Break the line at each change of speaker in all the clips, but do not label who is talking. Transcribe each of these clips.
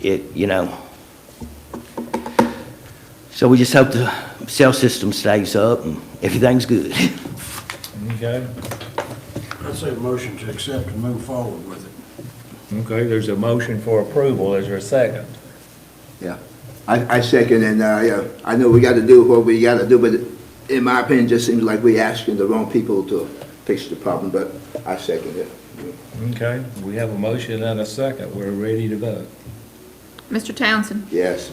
it, you know. So we just hope the cell system stays up and everything's good.
Okay,
I'd say motion to accept and move forward with it.
okay, there's a motion for approval, is there a second?
Yeah, I, I second, and, uh, yeah, I know we gotta do what we gotta do, but in my opinion, it just seems like we asking the wrong people to fix the problem, but I second it.
Okay, we have a motion and a second, we're ready to vote.
Mr. Townsend,
Yes,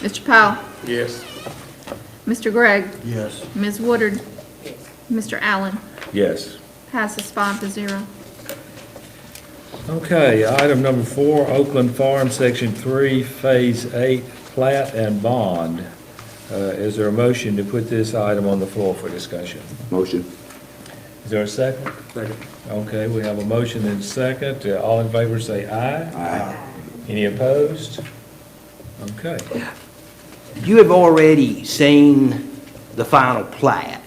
Mr. Powell. Yes. Mr. Gregg,
Yes.
Ms. Woodard. Mr. Allen,
Yes.
passes five to zero.
Okay, item number four, Oakland Farm, Section Three, Phase Eight, plat and bond. Uh, is there a motion to put this item on the floor for discussion?
motion,
Is there a second? Second. Okay, we have a motion and a second, Uh, all in favor say aye. Aye. Any opposed? Okay,
You have already seen the final plat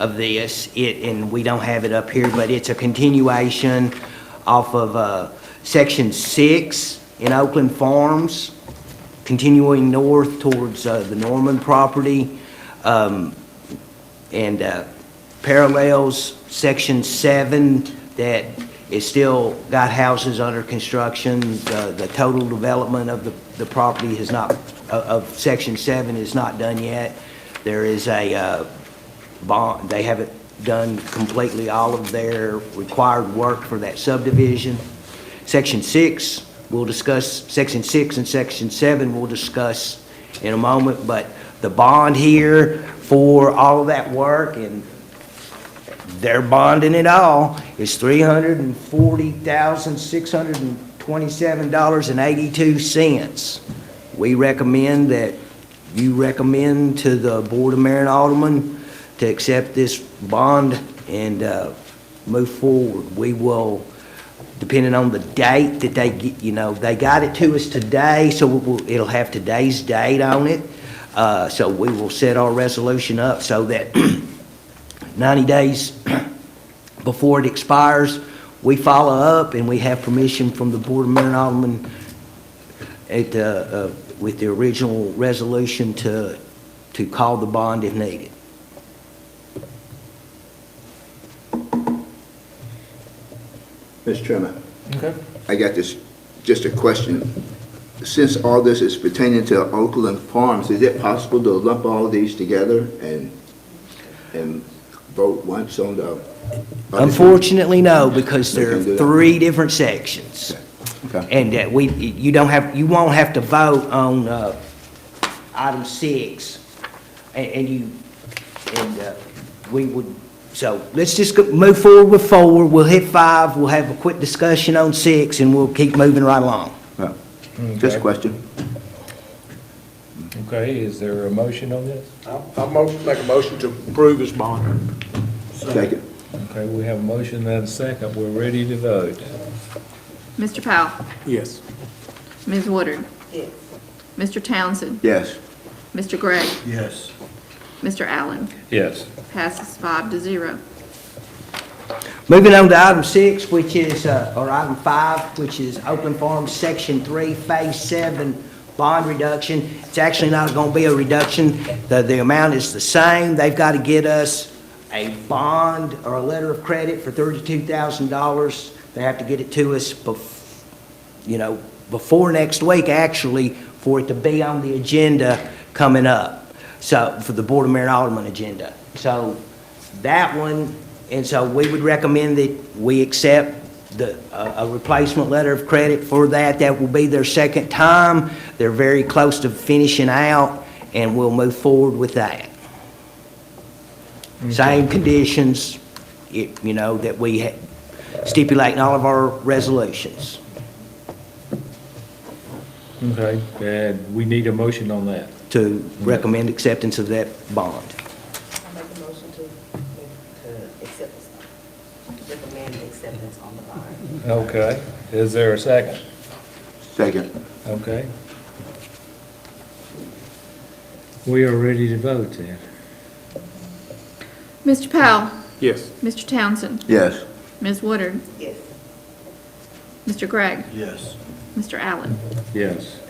of this, it, and we don't have it up here, but it's a continuation off of, uh, Section Six in Oakland Farms, continuing north towards, uh, the Norman property, um, and, uh, parallels Section Seven that is still got houses under construction. The, the total development of the, the property has not, of, of Section Seven is not done yet. There is a, uh, bond, they haven't done completely all of their required work for that subdivision. Section six, we'll discuss, section six and section seven, we'll discuss in a moment, but the bond here for all of that work and they're bonding it all is three hundred and forty thousand, six hundred and twenty-seven dollars and eighty-two cents. We recommend that, you recommend to the Board of Mayor and Alderman to accept this bond and, uh, move forward. We will, depending on the date that they get, you know, they got it to us today, so we'll- it'll have today's date on it. Uh, so we will set our resolution up so that 90 days before it expires, we follow up and we have permission from the Board of Mayor and Aldermen at, uh, uh, with the original resolution to, to call the bond if needed.
Mr. Chairman. I got this, just a question. Since all this is pertaining to Oakland Farms, is it possible to lump all these together and, and vote once on the?
Unfortunately, no, because there are
They can do that.
three different sections.
Okay.
And that we, you don't have, you won't have to vote on uh, item six, and- and you, and uh, we would, so let's just go- move forward with four, we'll hit five, we'll have a quick discussion on six, and we'll keep moving right along.
Uh, Just a question.
okay, is there a motion on this?
I'll mo- make a motion to approve his bond.
Second.
Okay, we have a motion and a second, we're ready to vote.
Mr. Powell,
Yes.
Ms. Woodard. Mr. Townsend,
Yes,
Mr. Gregg,
Yes.
Mr. Allen,
Yes.
passes five to zero.
Moving on to item six, which is, uh, or item five, which is Oakland Farms Section Three, Phase Seven Bond Reduction. It's actually not gonna be a reduction, the, the amount is the same, they've gotta get us a bond or a letter of credit for thirty-two thousand dollars. They have to get it to us bef- you know, before next week, actually, for it to be on the agenda coming up, so, for the Board of Mayor and Alderman agenda. So, that one, and so we would recommend that we accept the, a a replacement letter of credit for that. That will be their second time. They're very close to finishing out, and we'll move forward with that. Same conditions, it- you know, that we ha- stipulate in all of our resolutions.
Okay, and we need a motion on that.
to recommend acceptance of that bond.
I make a motion to, to accept this, recommend acceptance on the bond.
Okay, is there a second?
second.
Okay. We are ready to vote then.
Mr. Powell,
Yes.
Mr. Townsend,
Yes,
Ms. Woodard,
Yes.
Mr. Gregg,
Yes.
Mr. Allen,
Yes.